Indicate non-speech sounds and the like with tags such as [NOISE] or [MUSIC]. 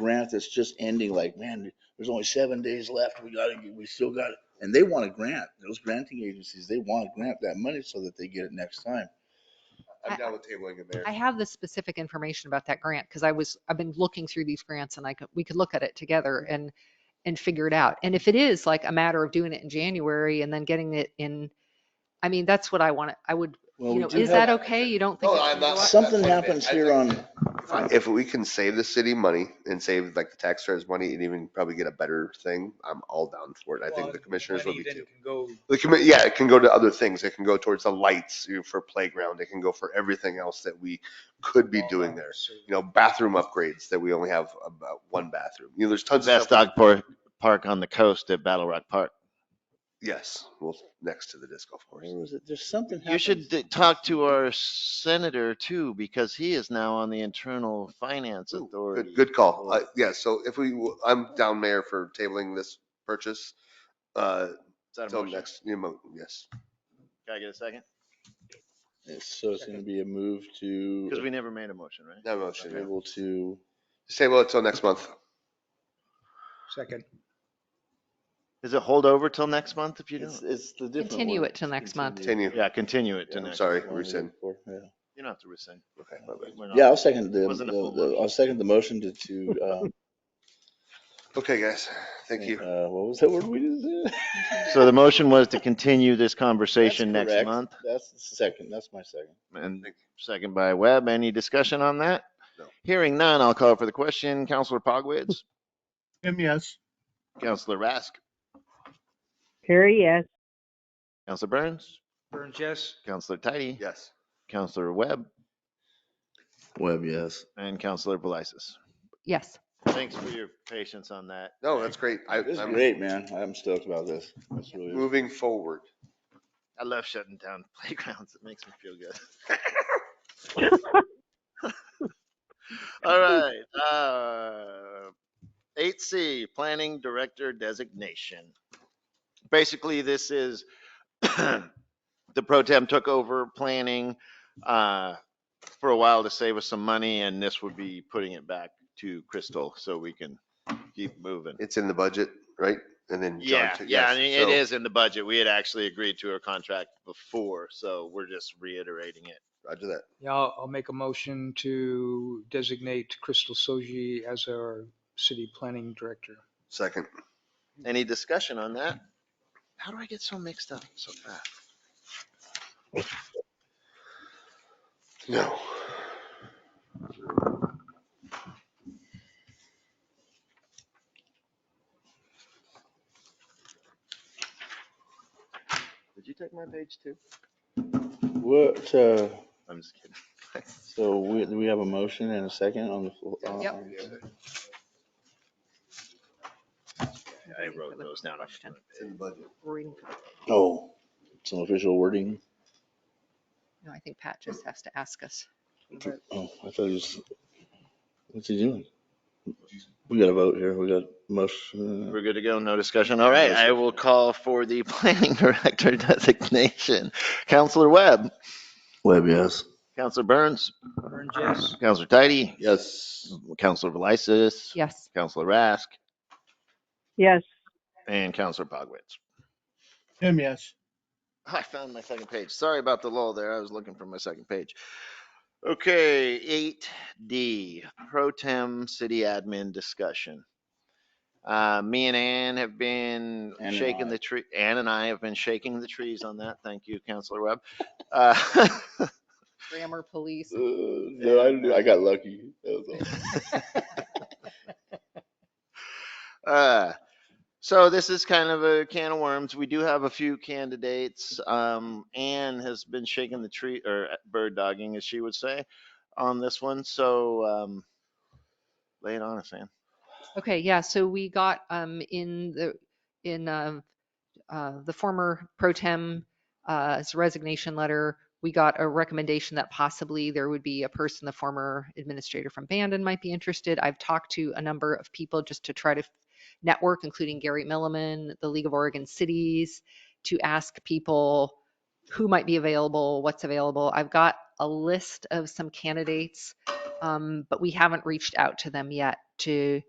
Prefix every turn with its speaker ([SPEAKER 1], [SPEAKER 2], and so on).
[SPEAKER 1] event that's just ending, like, man, there's only seven days left, we gotta, get- we still got it. And they want a grant, those granting agencies, they want to grant that money so that they get it next time.
[SPEAKER 2] I-
[SPEAKER 3] I'm down with tabling it there.
[SPEAKER 2] I have the specific information about that grant because I was, I've been looking through these grants and I could, we could look at it together and, and figure it out. And if it is like a matter of doing it in January and then getting it in, I mean, that's what I want. I would,
[SPEAKER 1] Well,
[SPEAKER 2] you
[SPEAKER 1] we
[SPEAKER 2] know,
[SPEAKER 1] do
[SPEAKER 2] is
[SPEAKER 1] have-
[SPEAKER 2] that okay? You don't think?
[SPEAKER 3] No,
[SPEAKER 2] it should
[SPEAKER 3] I'm
[SPEAKER 2] go
[SPEAKER 3] not-
[SPEAKER 2] up?
[SPEAKER 1] Something
[SPEAKER 3] That's what I
[SPEAKER 1] happens
[SPEAKER 3] meant. I
[SPEAKER 1] here
[SPEAKER 3] think-
[SPEAKER 1] on,
[SPEAKER 3] If we can save the city money and save like the taxpayers' money and even probably get a better thing, I'm all down for it. I think the commissioners would be too. The commit, yeah, it can go to other things. It can go towards the lights you know, for playground. It can go for everything else that we could be doing there. You know, bathroom upgrades that we only have about one bathroom. You know, there's tons of
[SPEAKER 4] That's
[SPEAKER 3] stuff.
[SPEAKER 4] dog park, park on the coast at Battle Rock Park.
[SPEAKER 3] Yes, well, next to the disc golf course.
[SPEAKER 1] where was it? There's something
[SPEAKER 4] You should
[SPEAKER 1] happens.
[SPEAKER 4] d- talk to our senator too, because he is now on the Internal Finance
[SPEAKER 3] Ooh, good-
[SPEAKER 4] Authority.
[SPEAKER 3] Good call.
[SPEAKER 4] board.
[SPEAKER 3] Uh, yeah, so if we, w- I'm down mayor for tabling this purchase. Uh,
[SPEAKER 4] Is that a
[SPEAKER 3] till
[SPEAKER 4] motion?
[SPEAKER 3] next, you know, yes.
[SPEAKER 4] Can I get a second?
[SPEAKER 1] So it's gonna be a move
[SPEAKER 4] Because
[SPEAKER 1] to,
[SPEAKER 4] we never made a motion, right?
[SPEAKER 3] No motion. yeah.
[SPEAKER 1] able to,
[SPEAKER 3] Just Table it till next month.
[SPEAKER 5] Second.
[SPEAKER 4] Is it hold over till next month if you
[SPEAKER 1] it's,
[SPEAKER 4] don't?
[SPEAKER 1] it's the different.
[SPEAKER 2] Continue
[SPEAKER 1] word.
[SPEAKER 2] it till next month.
[SPEAKER 3] Continue.
[SPEAKER 4] Yeah, continue it to
[SPEAKER 1] Yeah,
[SPEAKER 3] I'm
[SPEAKER 4] next.
[SPEAKER 3] sorry,
[SPEAKER 1] Long
[SPEAKER 3] rescind.
[SPEAKER 1] before, yeah.
[SPEAKER 4] You don't have to rescind.
[SPEAKER 3] Okay, my bad.
[SPEAKER 4] We're not-
[SPEAKER 1] Yeah, I'll second the,
[SPEAKER 4] Wasn't a
[SPEAKER 1] the-
[SPEAKER 4] full
[SPEAKER 1] the-
[SPEAKER 4] motion.
[SPEAKER 1] I'll second the motion to,
[SPEAKER 3] [LAUGHS]
[SPEAKER 1] to, um,
[SPEAKER 3] Okay, guys, thank you.
[SPEAKER 1] uh, what was that word we just did?
[SPEAKER 4] So the motion was to continue this conversation
[SPEAKER 1] That's
[SPEAKER 4] next
[SPEAKER 1] correct.
[SPEAKER 4] month
[SPEAKER 1] That's the second, that's my second.
[SPEAKER 4] and second by Webb. Any discussion on that?
[SPEAKER 3] No.
[SPEAKER 4] Hearing none, I'll call for the question. Counselor Pogwitz,
[SPEAKER 5] Him, yes.
[SPEAKER 4] Counselor Rask,
[SPEAKER 6] Carrie, yes.
[SPEAKER 4] Counselor Burns,
[SPEAKER 5] Burns, yes.
[SPEAKER 4] Counselor Tidy,
[SPEAKER 3] Yes.
[SPEAKER 4] Counselor Webb,
[SPEAKER 1] Web, yes.
[SPEAKER 4] and Counselor Velisis.
[SPEAKER 2] Yes.
[SPEAKER 4] Thanks for your patience on that.
[SPEAKER 3] No, that's great. I,
[SPEAKER 1] This is
[SPEAKER 3] I'm
[SPEAKER 1] great, man. I'm stoked about this. That's really,
[SPEAKER 3] moving forward.
[SPEAKER 4] I love shutting down [LAUGHS] playgrounds. It makes me feel good. [LAUGHS] All right, uh, eight C, Planning Director Designation. Basically, this is [CLEARS THROAT] the pro tem took over planning, uh, for a while to save us some money and this would be putting it back to Crystal so we can keep moving.
[SPEAKER 3] It's in the budget, right? And then. John
[SPEAKER 4] Yeah,
[SPEAKER 3] took-
[SPEAKER 4] yeah, I
[SPEAKER 3] yes,
[SPEAKER 4] mean, it
[SPEAKER 3] so-
[SPEAKER 4] is in the budget. We had actually agreed to a contract before, so we're just reiterating it.
[SPEAKER 3] Roger that.
[SPEAKER 5] Yeah, I'll, I'll make a motion to designate Crystal Soji as our city planning director.
[SPEAKER 3] Second.
[SPEAKER 4] Any discussion on that? How do I get so mixed up so fast?
[SPEAKER 3] No.
[SPEAKER 4] Did you take my page too?
[SPEAKER 1] what, uh,
[SPEAKER 4] I'm just kidding.
[SPEAKER 1] so we, we have a motion and a second on the floor. uh,
[SPEAKER 2] Yep.
[SPEAKER 1] on the-
[SPEAKER 4] I wrote those down. on my
[SPEAKER 3] It's in the budget.
[SPEAKER 2] Reading-
[SPEAKER 1] Oh, some official wording.
[SPEAKER 2] No, I think Pat just has to ask us.
[SPEAKER 1] Oh, I thought it was, what's he doing? We got a vote here. We got motion.
[SPEAKER 4] We're good to go, no discussion. All right, I will call for the [LAUGHS] planning director designation. Counselor Webb,
[SPEAKER 1] Web, yes.
[SPEAKER 4] Counselor Burns,
[SPEAKER 5] Burns, yes.
[SPEAKER 4] Counselor Tidy,
[SPEAKER 1] Yes.
[SPEAKER 4] Counselor Velisis,
[SPEAKER 2] Yes.
[SPEAKER 4] Counselor Rask,
[SPEAKER 6] Yes.
[SPEAKER 4] and Counselor Pogwitz.
[SPEAKER 5] Him, yes.
[SPEAKER 4] I found my second page. Sorry about the lull there. I was looking for my second page. Okay, eight D, pro tem city admin discussion. Uh, me and Ann have been
[SPEAKER 1] Ann and
[SPEAKER 4] shaking
[SPEAKER 1] I.
[SPEAKER 4] the tree, Ann and I have been shaking the trees on that. Thank you, Counselor Webb. Uh, [LAUGHS]
[SPEAKER 2] Grammar police.
[SPEAKER 1] Uh, No, I, knew- I got lucky. That was all.
[SPEAKER 4] Uh, so this is kind of a can of worms. We do have a few candidates. Um, Anne has been shaking the tree or uh, bird dogging, as she would say, on this one. So um, lay it on us, Anne.
[SPEAKER 2] Okay, yeah, so we got um in the in uh, uh, the former pro tem uh, his resignation letter, we got a recommendation that possibly there would be a person, the former administrator from Bandon might be interested. I've talked to a number of people just to try to network, including Gary Milliman, the League of Oregon Cities, to ask people who might be available, what's available. I've got a list of some candidates, um, but we haven't reached out to them yet to